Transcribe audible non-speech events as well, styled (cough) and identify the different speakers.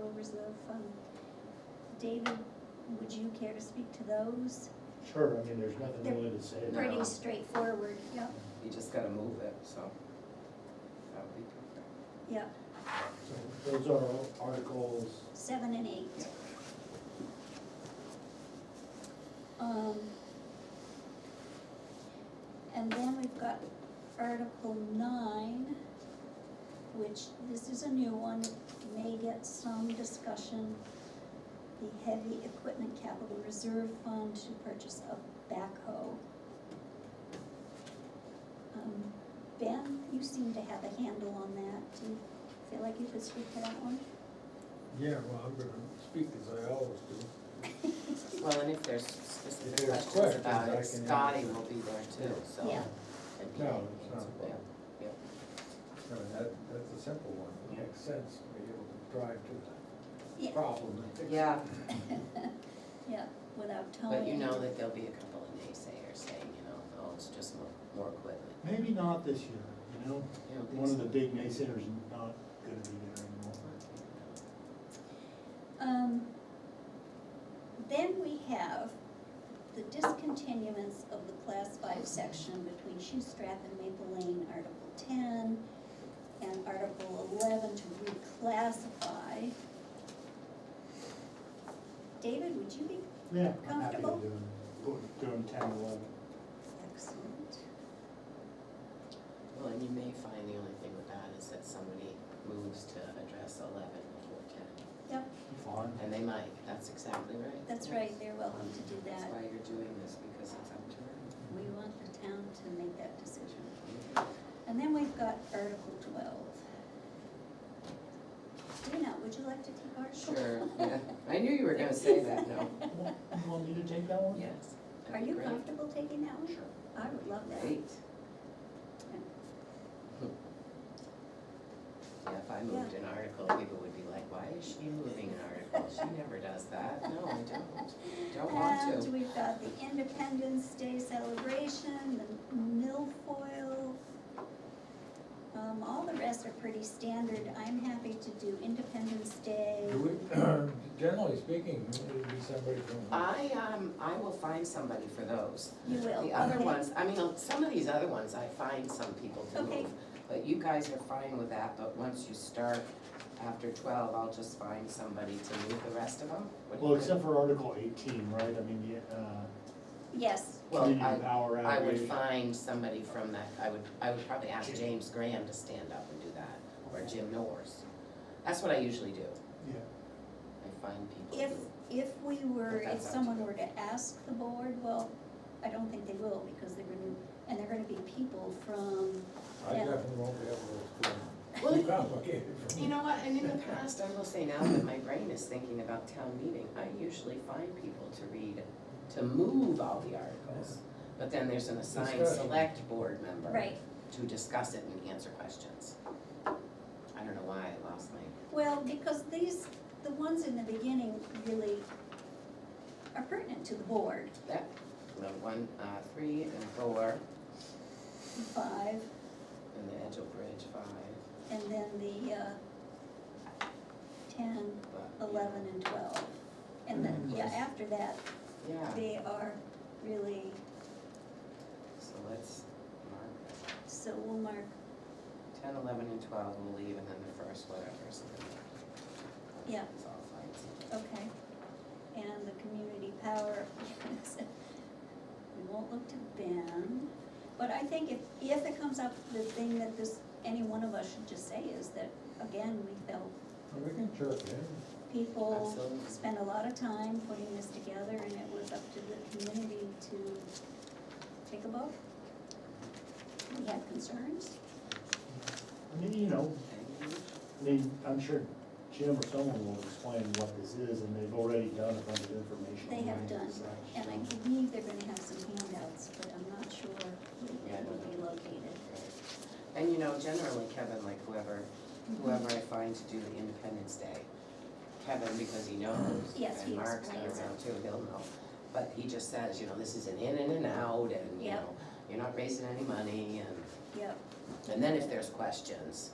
Speaker 1: um, David, would you care to speak to those?
Speaker 2: Sure, I mean, there's nothing
Speaker 1: They're
Speaker 2: really to say.
Speaker 3: Right.
Speaker 1: Pretty straightforward, yep,
Speaker 3: You just gotta move it, so. That would be perfect.
Speaker 1: yep,
Speaker 2: So Those are articles,
Speaker 1: seven and eight. Um, and then we've got Article nine, which this is a new one, it may get some discussion. The heavy equipment capital reserve fund to purchase a backhoe. Um, Ben, you seem to have a handle on that, do you feel like you could speak to that one? (laughs)
Speaker 4: Yeah, well, I'm gonna speak as I always do.
Speaker 3: Well, and if there's
Speaker 4: If
Speaker 3: specific
Speaker 4: there's
Speaker 3: questions about it,
Speaker 4: questions, I can
Speaker 3: Scotty
Speaker 4: answer.
Speaker 3: will be there too, so.
Speaker 1: Yeah.
Speaker 3: it'd be-
Speaker 4: No, it's not a problem.
Speaker 3: Yeah,
Speaker 4: I mean, that, that's a simple one. It makes sense to be able to drive to
Speaker 1: Yeah,
Speaker 4: the problem and fix it.
Speaker 3: Yeah,
Speaker 1: (laughs) yeah, without towing.
Speaker 3: but you know that there'll be a couple of naysayers saying, you know, oh, it's just more, more equipment.
Speaker 2: maybe not this year, you know?
Speaker 3: You don't think
Speaker 2: One of
Speaker 3: so?
Speaker 2: the big naysayers is not gonna be there anymore.
Speaker 1: Um, then we have the discontinuance of the class five section between Shoestrap and Maple Lane, Article ten, and Article eleven to reclassify. David, would you be
Speaker 2: Yeah, I'm happy to
Speaker 1: Comfortable?
Speaker 2: do it, Go- doing ten, eleven.
Speaker 1: excellent?
Speaker 3: Well, and you may find the only thing with that is that somebody moves to address eleven before ten,
Speaker 1: Yep,
Speaker 2: Fine.
Speaker 3: (laughs) and they might, that's exactly right.
Speaker 1: that's right, they're welcome to do
Speaker 3: That's
Speaker 1: that.
Speaker 3: why you're doing this, because it's up to her.
Speaker 1: We want the town to make that decision. And then we've got Article twelve. Dina, would you like to take Article? (laughs)
Speaker 3: Sure, yeah, I knew you were gonna say that, no,
Speaker 2: You want me to take that one?
Speaker 3: yes.
Speaker 1: Are
Speaker 3: that'd be
Speaker 1: you
Speaker 3: great.
Speaker 1: comfortable taking that one?
Speaker 3: Sure.
Speaker 1: I would love that.
Speaker 3: Great. Yeah, if I moved an article, people would be like, why is she moving an article? She never does that. No, I don't, don't want
Speaker 1: And
Speaker 3: to.
Speaker 1: we've got the Independence Day celebration, the milfoil. Um, all the rest are pretty standard. I'm happy to do Independence Day.
Speaker 4: Do we, (clears throat) generally speaking, it'd be somebody from,
Speaker 3: I, um, I will find somebody for those.
Speaker 1: You will,
Speaker 3: The other
Speaker 1: okay.
Speaker 3: ones, I mean, some of these other ones, I find some people to
Speaker 1: Okay.
Speaker 3: move. But you guys are fine with that, but once you start after twelve, I'll just find somebody to move the rest of them. What do you
Speaker 2: Well,
Speaker 3: think?
Speaker 2: except for Article eighteen, right, I mean, the, uh,
Speaker 1: Yes,
Speaker 3: Well, I-
Speaker 2: community power
Speaker 3: I would
Speaker 2: outage.
Speaker 3: find somebody from that, I would, I would probably ask James Graham to stand up and do that, or Jim Norris. That's what I usually do,
Speaker 2: Yeah,
Speaker 3: I find people
Speaker 1: if,
Speaker 3: who,
Speaker 1: if we were,
Speaker 3: If that's
Speaker 1: if
Speaker 3: up to
Speaker 1: someone
Speaker 3: them.
Speaker 1: were to ask the board, well, I don't think they will because they're gonna, and they're gonna be people from,
Speaker 4: I
Speaker 1: yeah.
Speaker 4: definitely won't be able to explain.
Speaker 3: Well,
Speaker 4: Too complicated for
Speaker 3: you
Speaker 4: me.
Speaker 3: know what, and in the past, I will say now that my brain is thinking about town meeting, I usually find people to read, to move all the articles. But then there's an assigned
Speaker 4: Discussion.
Speaker 3: select board member
Speaker 1: right,
Speaker 3: to discuss it and answer questions. I don't know why I lost my,
Speaker 1: Well, because these, the ones in the beginning really are pertinent to the board,
Speaker 3: that, the one, uh, three and four,
Speaker 1: five,
Speaker 3: and the Edgeo Bridge five,
Speaker 1: and then the, uh, ten,
Speaker 3: but.
Speaker 1: eleven, and twelve. And then, yeah, after that,
Speaker 3: Yeah.
Speaker 1: they are really,
Speaker 3: So let's mark
Speaker 1: so we'll mark,
Speaker 3: ten, eleven, and twelve, we'll leave, and then the first whatever, so then.
Speaker 1: Yeah.
Speaker 3: It's all fine.
Speaker 1: okay. And the community power, (laughs) we won't look to Ben. But I think if, if it comes up, the thing that this, any one of us should just say is that, again, we felt
Speaker 4: And We can chirp in,
Speaker 1: people
Speaker 3: Absolutely.
Speaker 1: spent a lot of time putting this together, and it was up to the community to take a vote. We have concerns,
Speaker 2: I mean, you know,
Speaker 3: And you-
Speaker 2: I mean, I'm sure Jim or someone will explain what this is, and they've already done a bunch of information.
Speaker 1: they have
Speaker 2: right?
Speaker 1: done,
Speaker 2: So-
Speaker 1: and I believe they're gonna have some handouts, but I'm not sure where it will be located.
Speaker 3: And you know, generally Kevin, like whoever, whoever I find to do the Independence Day, Kevin, because he knows,
Speaker 1: Yes, he
Speaker 3: and Mark's been
Speaker 1: explains it.
Speaker 3: around too, he'll know. But he just says, you know, this is an in and an out, and you
Speaker 1: Yep.
Speaker 3: know, you're not raising any money, and,
Speaker 1: Yep,
Speaker 3: and then if there's questions,